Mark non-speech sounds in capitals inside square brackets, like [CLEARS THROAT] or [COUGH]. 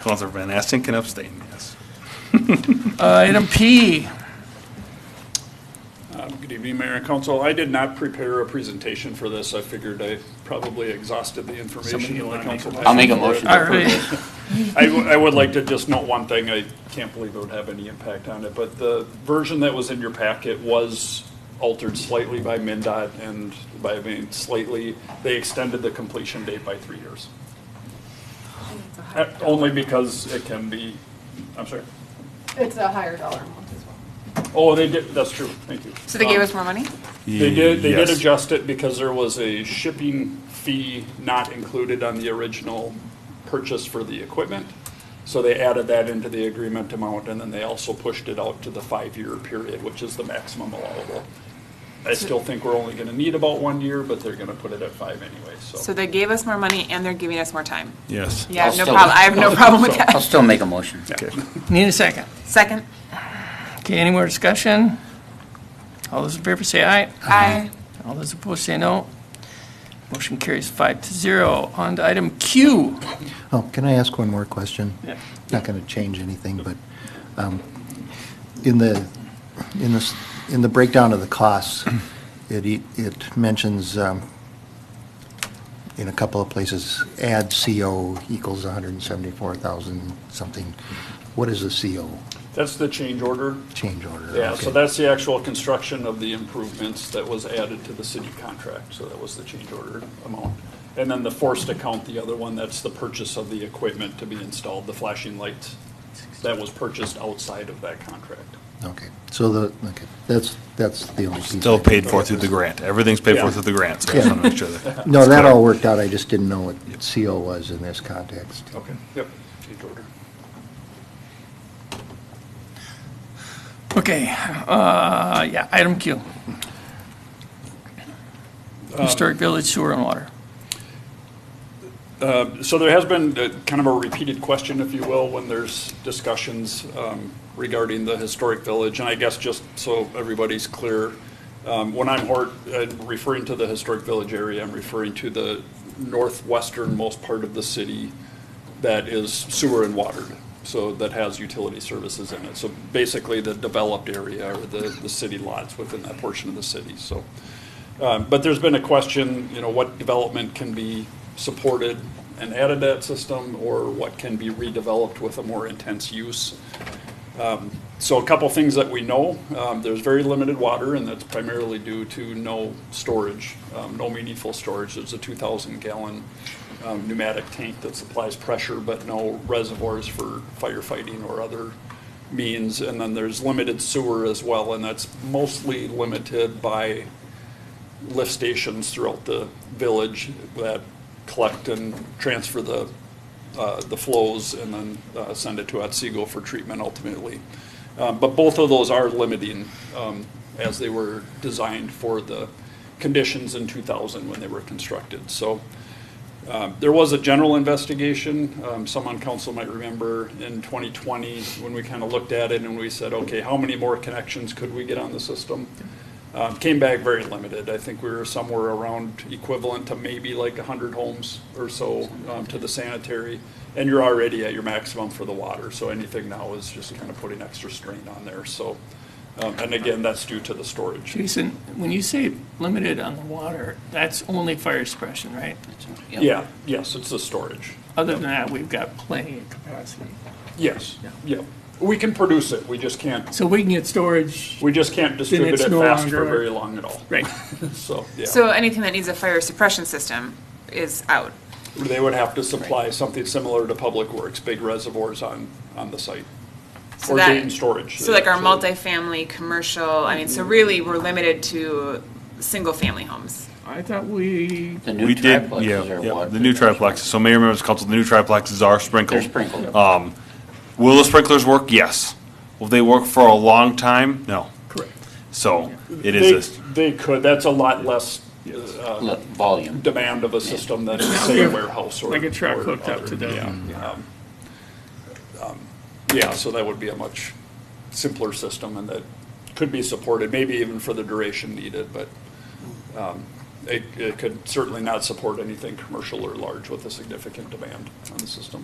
Counselor Van Aston can abstain, yes. Uh, Item P, Um, Good evening, Mayor and Council. I did not prepare a presentation for this. I figured I probably exhausted the information that the council had. I'll make a motion. all right. I, w- I would like to just note one thing, I can't believe it would have any impact on it, but the version that was in your packet was altered slightly by MinDOT and by, I mean, slightly, they extended the completion date by three years. Uh, Only because it can be, I'm sorry, It's a higher dollar amount as well. oh, they did, that's true, thank you. So they gave Um, us more money? They did, they did Yes. adjust it because there was a shipping fee not included on the original purchase for the equipment. So they added that into the agreement amount, and then they also pushed it out to the five-year period, which is the maximum allowable. I still think we're only gonna need about one year, but they're gonna put it at five anyway, So so. they gave us more money and they're giving us more time. Yes. Yeah, I have no I'll still- problem, I have no [LAUGHS] problem with that. I'll still make a motion. Okay. Need a second. Second? Okay, any more discussion? All those in favor say aye. Aye. All those opposed say no. Motion carries five to zero. On to item Q. Oh, can I ask one more question? Yeah. Not going to change anything, but um, in the, in this, in the breakdown of [CLEARS THROAT] the costs, it, e- it mentions um, in a couple of places, add CO equals 174,000 something. What is the CO That's the change order. change order? Yeah, so Okay. that's the actual construction of the improvements that was added to the city contract, so that was the change order amount. And then the forced account, the other one, that's the purchase of the equipment to be installed, the flashing lights that was purchased outside of that contract. Okay, so the, okay, that's, that's the only piece. Still paid for through the grant. Everything's paid for Yeah. through the grant, so I just want to make sure [LAUGHS] that. No, that all worked out. I just didn't know what CO was in this context. Okay. Yep, change order. Okay, uh, yeah, item Q. Historic Village Sewer and Water. so there has been uh, kind of a repeated question, if you will, when there's discussions um, regarding the historic village. And I guess just so everybody's clear, um, when I'm hor- uh, referring to the historic village area, I'm referring to the northwesternmost part of the city that is sewer and watered, so that has utility services in it. So basically, the developed area or the, the city lots within that portion of the city, so. Um, But there's been a question, you know, what development can be supported and added to that system, or what can be redeveloped with a more intense use? Um, So a couple things that we know, um, there's very limited water, and that's primarily due to no storage, um, no meaningful storage. There's a 2,000 gallon um, pneumatic tank that supplies pressure, but no reservoirs for firefighting or other means. And then there's limited sewer as well, and that's mostly limited by lift stations throughout the village that collect and transfer the, uh, the flows and then uh, send it to Otsego for treatment ultimately. Um, But both of those are limiting um, as they were designed for the conditions in 2000 when they were constructed. So um, There was a general investigation, um, some on council might remember, in 2020, when we kind of looked at it and we said, okay, how many more connections could we get on the system? Um, Came back very limited. I think we were somewhere around equivalent to maybe like 100 homes or so um, to the sanitary. And you're already at your maximum for the water, so anything now is just kind of putting extra strain on there, so. um, And again, that's due to the storage. Jason, when you say limited on the water, that's only fire suppression, right? Yeah, yes, it's the storage. Other than that, we've got plenty of capacity. Yes, yeah. We can produce it, we just can't So we can get storage, We just can't distribute it it's no fast for longer- very long at all. right? So, yeah, So anything that needs a fire suppression system is out. they would have to supply something similar to Public Works, big reservoirs on, on the site. So Or that- gain storage. So like our So- multifamily, commercial, I mean, so really, we're limited to single-family homes. I thought we, The We new did, triplexes yeah, are yeah, what? the new triplexes. So Mayor members of council, the new triplexes are They're sprinkled. sprinkled. Uh, Will the sprinklers work? Yes. Will they work for a long time? No. correct. So it They, is, a- they could, that's a lot less Look, Volume. demand of a system than say a warehouse or. Like a truck or hooked up to other- the- yeah, um, um, Yeah, so that would be a much simpler system and that could be supported, maybe even for the duration needed, but um, it, it could certainly not support anything commercial or large with a significant demand on the system.